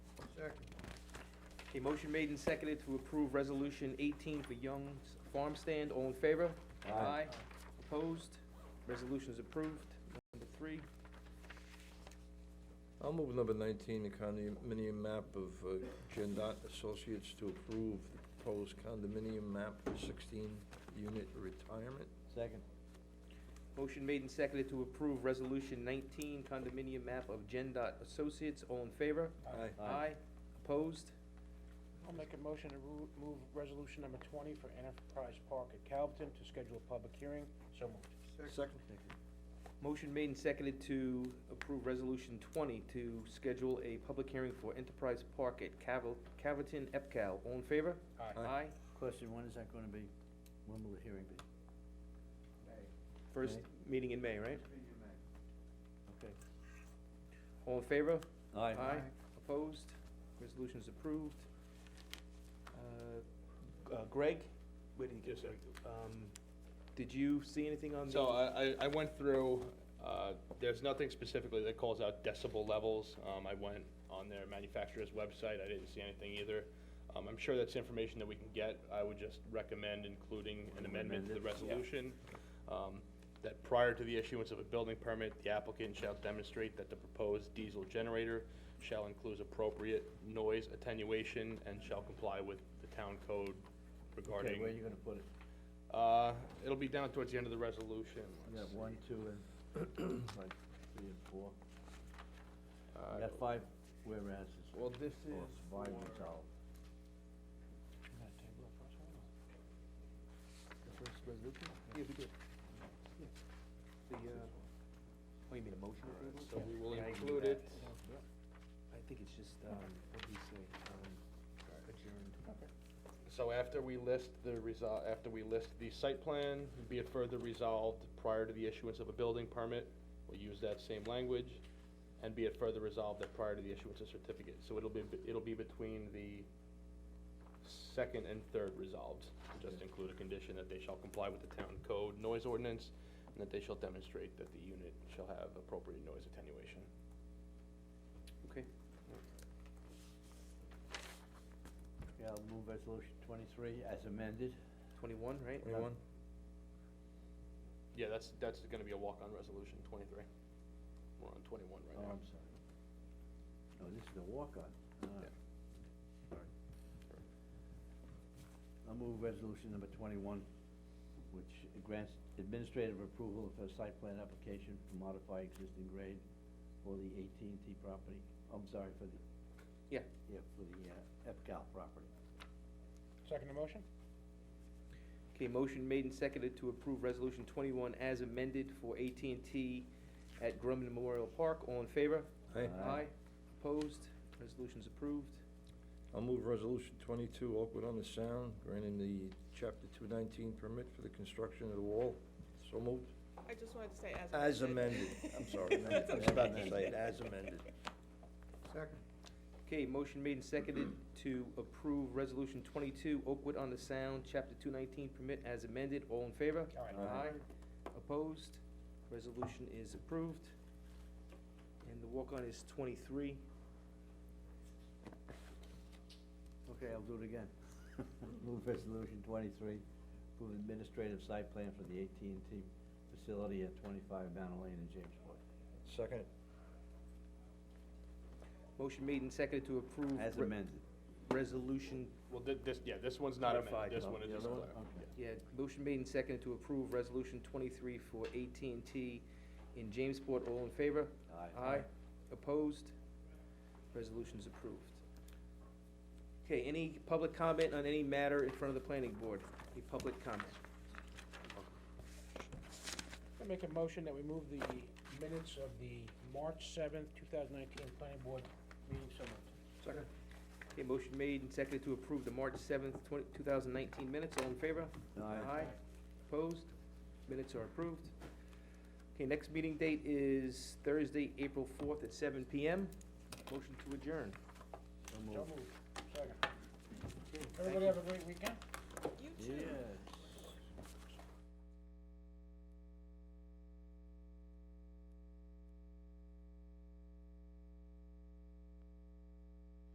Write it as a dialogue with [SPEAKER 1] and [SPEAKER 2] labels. [SPEAKER 1] Second.
[SPEAKER 2] A motion made and seconded to approve resolution eighteen for Young's Farm Stand, all in favor?
[SPEAKER 3] Aye.
[SPEAKER 2] Opposed? Resolution is approved. Number three,
[SPEAKER 3] I'll move number nineteen, the condominium map of uh, Gendot Associates to approve the proposed condominium map for sixteen unit retirement.
[SPEAKER 4] Second.
[SPEAKER 2] motion made and seconded to approve resolution nineteen condominium map of Gen Dot Associates, all in favor?
[SPEAKER 3] Aye.
[SPEAKER 4] Aye.
[SPEAKER 2] Opposed?
[SPEAKER 5] I'll make a motion to ru- move resolution number twenty for Enterprise Park at Calverton to schedule a public hearing, so moved.
[SPEAKER 3] Second.
[SPEAKER 2] Motion made and seconded to approve resolution twenty to schedule a public hearing for Enterprise Park at Cavill, Caverton, EPCAL, all in favor?
[SPEAKER 5] Aye.
[SPEAKER 3] Aye.
[SPEAKER 2] Aye.
[SPEAKER 4] Question, when is that gonna be? When will the hearing be?
[SPEAKER 2] First meeting in May, right?
[SPEAKER 4] Okay.
[SPEAKER 2] All in favor?
[SPEAKER 4] Aye.
[SPEAKER 2] Opposed? Resolution is approved. Uh, uh, Greg? Where did he go,
[SPEAKER 6] Yes, sir.
[SPEAKER 2] Greg? Um, Did you see anything on the?
[SPEAKER 6] So I, I- I went through, uh, there's nothing specifically that calls out decibel levels. Um, I went on their manufacturer's website, I didn't see anything either. Um, I'm sure that's information that we can get. I would just recommend including an amendment to the
[SPEAKER 4] Amendment,
[SPEAKER 6] resolution. um, That prior to the issuance of a building permit, the applicant shall demonstrate that the proposed diesel generator shall include appropriate noise attenuation and shall comply with the town code
[SPEAKER 4] Okay,
[SPEAKER 6] regarding.
[SPEAKER 4] where are you gonna put it?
[SPEAKER 6] Uh, it'll be down towards the end of the resolution.
[SPEAKER 4] You
[SPEAKER 6] Let's
[SPEAKER 4] have one, two, and like three and four.
[SPEAKER 6] see. Uh,
[SPEAKER 4] You got five whereas's.
[SPEAKER 3] Well, this is
[SPEAKER 4] Or five
[SPEAKER 3] for-
[SPEAKER 4] resolved.
[SPEAKER 3] The first resolution?
[SPEAKER 2] Yeah, we did. Yeah. The, uh, oh, you mean a motion? to table?
[SPEAKER 6] So we will
[SPEAKER 2] Yeah, I can do
[SPEAKER 6] include
[SPEAKER 2] that.
[SPEAKER 6] it.
[SPEAKER 2] I think it's just, um, what do you say, um, adjourned.
[SPEAKER 6] So after we list the resol, after we list the site plan, be it further resolved prior to the issuance of a building permit, we'll use that same language, and be it further resolved that prior to the issuance of certificate. So it'll be, it'll be between the second and third resolved. Just include a condition that they shall comply with the town code noise ordinance, and that they shall demonstrate that the unit shall have appropriate noise attenuation.
[SPEAKER 2] Okay.
[SPEAKER 4] Yeah, I'll move resolution twenty-three as amended.
[SPEAKER 2] Twenty-one, right?
[SPEAKER 3] Anyone?
[SPEAKER 6] Yeah, that's, that's gonna be a walk-on resolution, twenty-three. We're on twenty-one
[SPEAKER 4] Oh,
[SPEAKER 6] right now.
[SPEAKER 4] I'm sorry. Oh, this is the walk-on. Ah,
[SPEAKER 6] Yeah.
[SPEAKER 4] Sorry. I'll move resolution number twenty-one, which grants administrative approval for a site plan application to modify existing grade for the AT&T property. I'm sorry, for the,
[SPEAKER 2] Yeah.
[SPEAKER 4] yeah, for the uh, Epcal property.
[SPEAKER 5] Second motion?
[SPEAKER 2] Okay, motion made and seconded to approve resolution twenty-one as amended for AT&T at Grumman Memorial Park. All in favor?
[SPEAKER 3] Aye.
[SPEAKER 4] Aye.
[SPEAKER 2] Opposed? Resolution's approved.
[SPEAKER 3] I'll move resolution twenty-two, Oakwood on the Sound, granting the chapter two nineteen permit for the construction of the wall. So moved.
[SPEAKER 7] I just wanted to say as amended.
[SPEAKER 3] As amended, I'm sorry,
[SPEAKER 4] That's
[SPEAKER 3] I was about to
[SPEAKER 4] amended.
[SPEAKER 3] say it, as amended.
[SPEAKER 1] Second.
[SPEAKER 2] Okay, motion made and seconded to approve resolution twenty-two, Oakwood on the Sound, chapter two nineteen permit as amended. All in favor?
[SPEAKER 5] Aye.
[SPEAKER 3] Aye.
[SPEAKER 2] Opposed? Resolution is approved. And the walk-on is twenty-three.
[SPEAKER 4] Okay, I'll do it again. Move resolution twenty-three, approve administrative site plan for the AT&T facility at twenty-five Mountain Lane in Jamesport.
[SPEAKER 3] Second.
[SPEAKER 2] Motion made and seconded to approve.
[SPEAKER 4] As
[SPEAKER 2] re-
[SPEAKER 4] amended.
[SPEAKER 2] Resolution
[SPEAKER 6] Well, thi- this, yeah, this one's not
[SPEAKER 2] Clarified,
[SPEAKER 6] amended, this
[SPEAKER 4] no,
[SPEAKER 6] one is
[SPEAKER 4] the
[SPEAKER 6] just
[SPEAKER 4] other one?
[SPEAKER 6] clarified.
[SPEAKER 4] Okay.
[SPEAKER 2] Yeah, motion made and seconded to approve resolution twenty-three for AT&T in Jamesport. All in favor?
[SPEAKER 4] Aye.
[SPEAKER 2] Aye. Opposed? Resolution's approved. Okay, any public comment on any matter in front of the planning board? Any public comment?
[SPEAKER 5] I make a motion that we move the minutes of the March seventh, two thousand nineteen planning board meeting, so moved.
[SPEAKER 2] Second. Okay, motion made and seconded to approve the March seventh, twenty, two thousand nineteen minutes. All in favor?
[SPEAKER 4] Aye.
[SPEAKER 2] Opposed? Minutes are approved. Okay, next meeting date is Thursday, April fourth at seven PM. Motion to adjourn.
[SPEAKER 4] So
[SPEAKER 5] So
[SPEAKER 4] moved.
[SPEAKER 5] moved. Second.
[SPEAKER 2] Okay, thank
[SPEAKER 5] Everybody
[SPEAKER 2] you.
[SPEAKER 5] have a great weekend?
[SPEAKER 7] You too.
[SPEAKER 4] Yeah.